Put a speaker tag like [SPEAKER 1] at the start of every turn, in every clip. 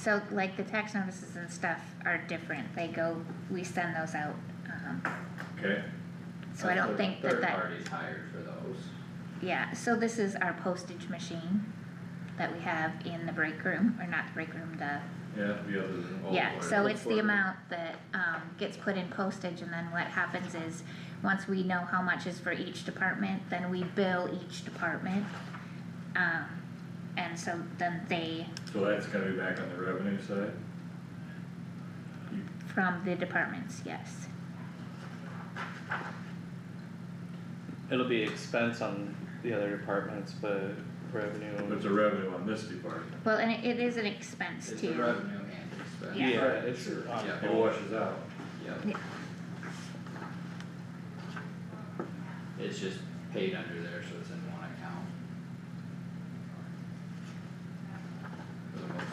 [SPEAKER 1] So like the tax notices and stuff are different, they go, we send those out, um,
[SPEAKER 2] Okay,
[SPEAKER 1] so I don't
[SPEAKER 3] Third-
[SPEAKER 1] think that
[SPEAKER 3] Third
[SPEAKER 1] that,
[SPEAKER 3] parties hired for those.
[SPEAKER 1] yeah, so this is our postage machine that we have in the break room, or not the break room, the,
[SPEAKER 2] yeah, the other than all.
[SPEAKER 1] yeah, so it's the
[SPEAKER 2] Forward.
[SPEAKER 1] amount that, um, gets put in postage, and then what happens is, once we know how much is for each department, then we bill each department. Um, and so then they,
[SPEAKER 2] So that's gonna be back on the revenue side?
[SPEAKER 1] from the departments, yes,
[SPEAKER 4] It'll be expense on the other departments, but revenue,
[SPEAKER 2] It's a revenue on this department,
[SPEAKER 1] well, and it, it is an expense too.
[SPEAKER 3] It's a revenue and expense.
[SPEAKER 1] Yeah.
[SPEAKER 4] yeah, it's um,
[SPEAKER 3] Sure,
[SPEAKER 4] on
[SPEAKER 3] yeah.
[SPEAKER 2] it washes out.
[SPEAKER 3] Yep. It's just paid under there, so it's in one account. For the most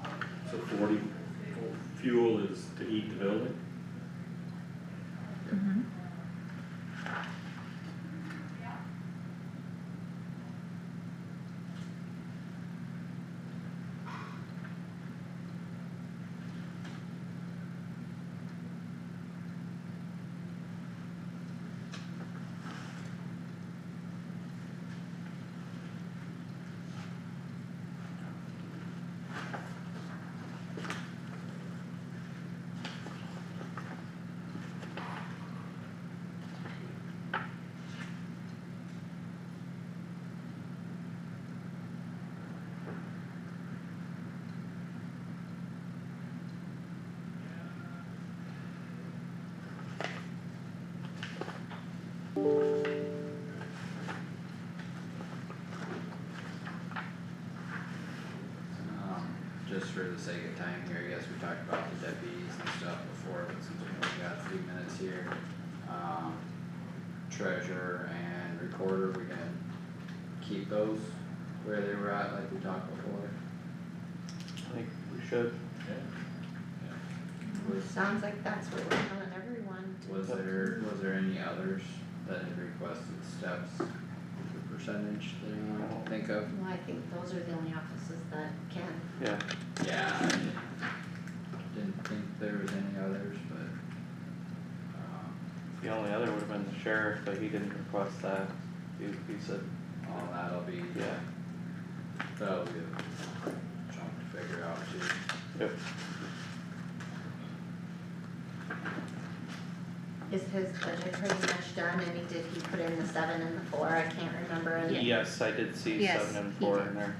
[SPEAKER 3] part.
[SPEAKER 2] So forty, fuel is to heat the building?
[SPEAKER 1] Mhm.
[SPEAKER 3] Um, just for the sake of time here, I guess we talked about the deputies and stuff before, but since we only got three minutes here, um, treasurer and recorder, we gonna keep those where they were at like we talked before?
[SPEAKER 4] I think we should,
[SPEAKER 3] Was,
[SPEAKER 5] Sounds like that's what we're telling everyone.
[SPEAKER 3] was there, was there any others that had requested steps, the percentage that anyone can think of?
[SPEAKER 5] Well, I think those are the only offices that can.
[SPEAKER 4] yeah,
[SPEAKER 3] Yeah, I didn't, didn't think there was any others, but, um,
[SPEAKER 4] the only other would have been the sheriff, but he didn't request that, he, he said,
[SPEAKER 3] All that'll be,
[SPEAKER 4] yeah,
[SPEAKER 3] that'll be a chunk to figure out too.
[SPEAKER 4] yep,
[SPEAKER 5] Is his budget pretty much done? I mean, did he put in the seven and the four? I can't remember. And
[SPEAKER 4] yes, I did see
[SPEAKER 1] Yes,
[SPEAKER 4] seven and
[SPEAKER 1] he
[SPEAKER 4] four
[SPEAKER 1] did.
[SPEAKER 4] in there,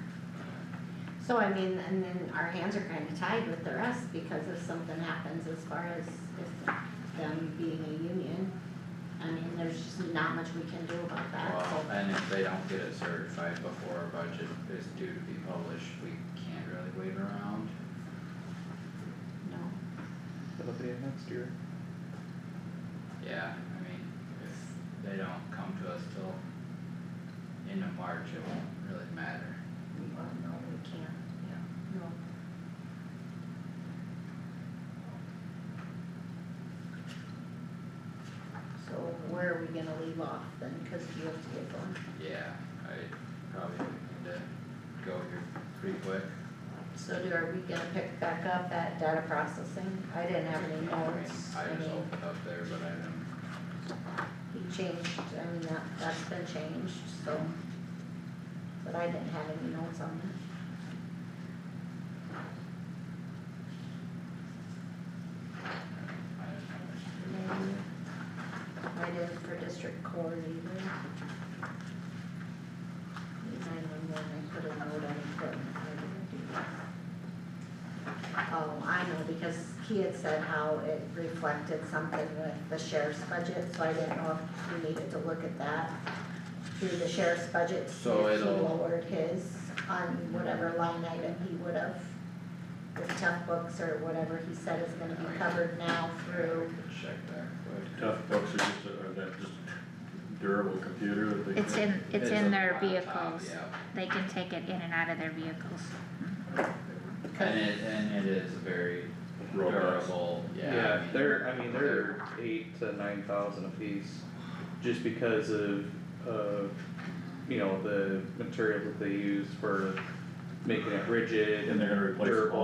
[SPEAKER 5] So I mean, and then our hands are kinda tied with the rest because if something happens as far as, as them being a union. I mean, there's just not much we can do about that,
[SPEAKER 3] Well,
[SPEAKER 5] so.
[SPEAKER 3] and if they don't get it certified before our budget is due to be published, we can't really wait around.
[SPEAKER 5] No.
[SPEAKER 4] it'll be next year.
[SPEAKER 3] Yeah, I mean, if they don't come to us till end of March, it won't really matter.
[SPEAKER 5] Well, no, we can't. Yeah. No. So where are we gonna leave off then, cause you have to get going.
[SPEAKER 3] Yeah, I probably need to go here pretty quick.
[SPEAKER 5] So do, are we gonna pick back up at data processing? I didn't have any notes,
[SPEAKER 3] I
[SPEAKER 5] I
[SPEAKER 3] mean, I just
[SPEAKER 5] mean,
[SPEAKER 3] opened up there, but I didn't.
[SPEAKER 5] he changed, I mean, that, that's been changed, so. But I didn't have any notes on it.
[SPEAKER 3] I didn't know.
[SPEAKER 5] I didn't for district court either. Nine-one-one, I put a note on it, but I didn't do that. Oh, I know, because he had said how it reflected something with the sheriff's budget, so I didn't know if we needed to look at that. Through the sheriff's budget, to see
[SPEAKER 3] So
[SPEAKER 5] if he
[SPEAKER 3] it'll-
[SPEAKER 5] lowered his on whatever line item he would have. With tough books or whatever he said is gonna be covered now
[SPEAKER 3] Yeah,
[SPEAKER 5] through
[SPEAKER 3] we could check that quick.
[SPEAKER 2] Tough books are just, are that just durable computer that they?
[SPEAKER 1] It's in, it's in
[SPEAKER 3] a
[SPEAKER 1] their
[SPEAKER 3] laptop,
[SPEAKER 1] vehicles,
[SPEAKER 3] Yeah,
[SPEAKER 1] they can take it in and out of their vehicles.
[SPEAKER 3] and it, and it is very
[SPEAKER 2] Robust.
[SPEAKER 3] durable, yeah. I
[SPEAKER 4] Yeah,
[SPEAKER 3] mean,
[SPEAKER 4] they're, I mean, they're eight to nine thousand apiece, just because of, of, you know, the material that they use for
[SPEAKER 2] making it rigid
[SPEAKER 4] And they're gonna replace
[SPEAKER 2] durable.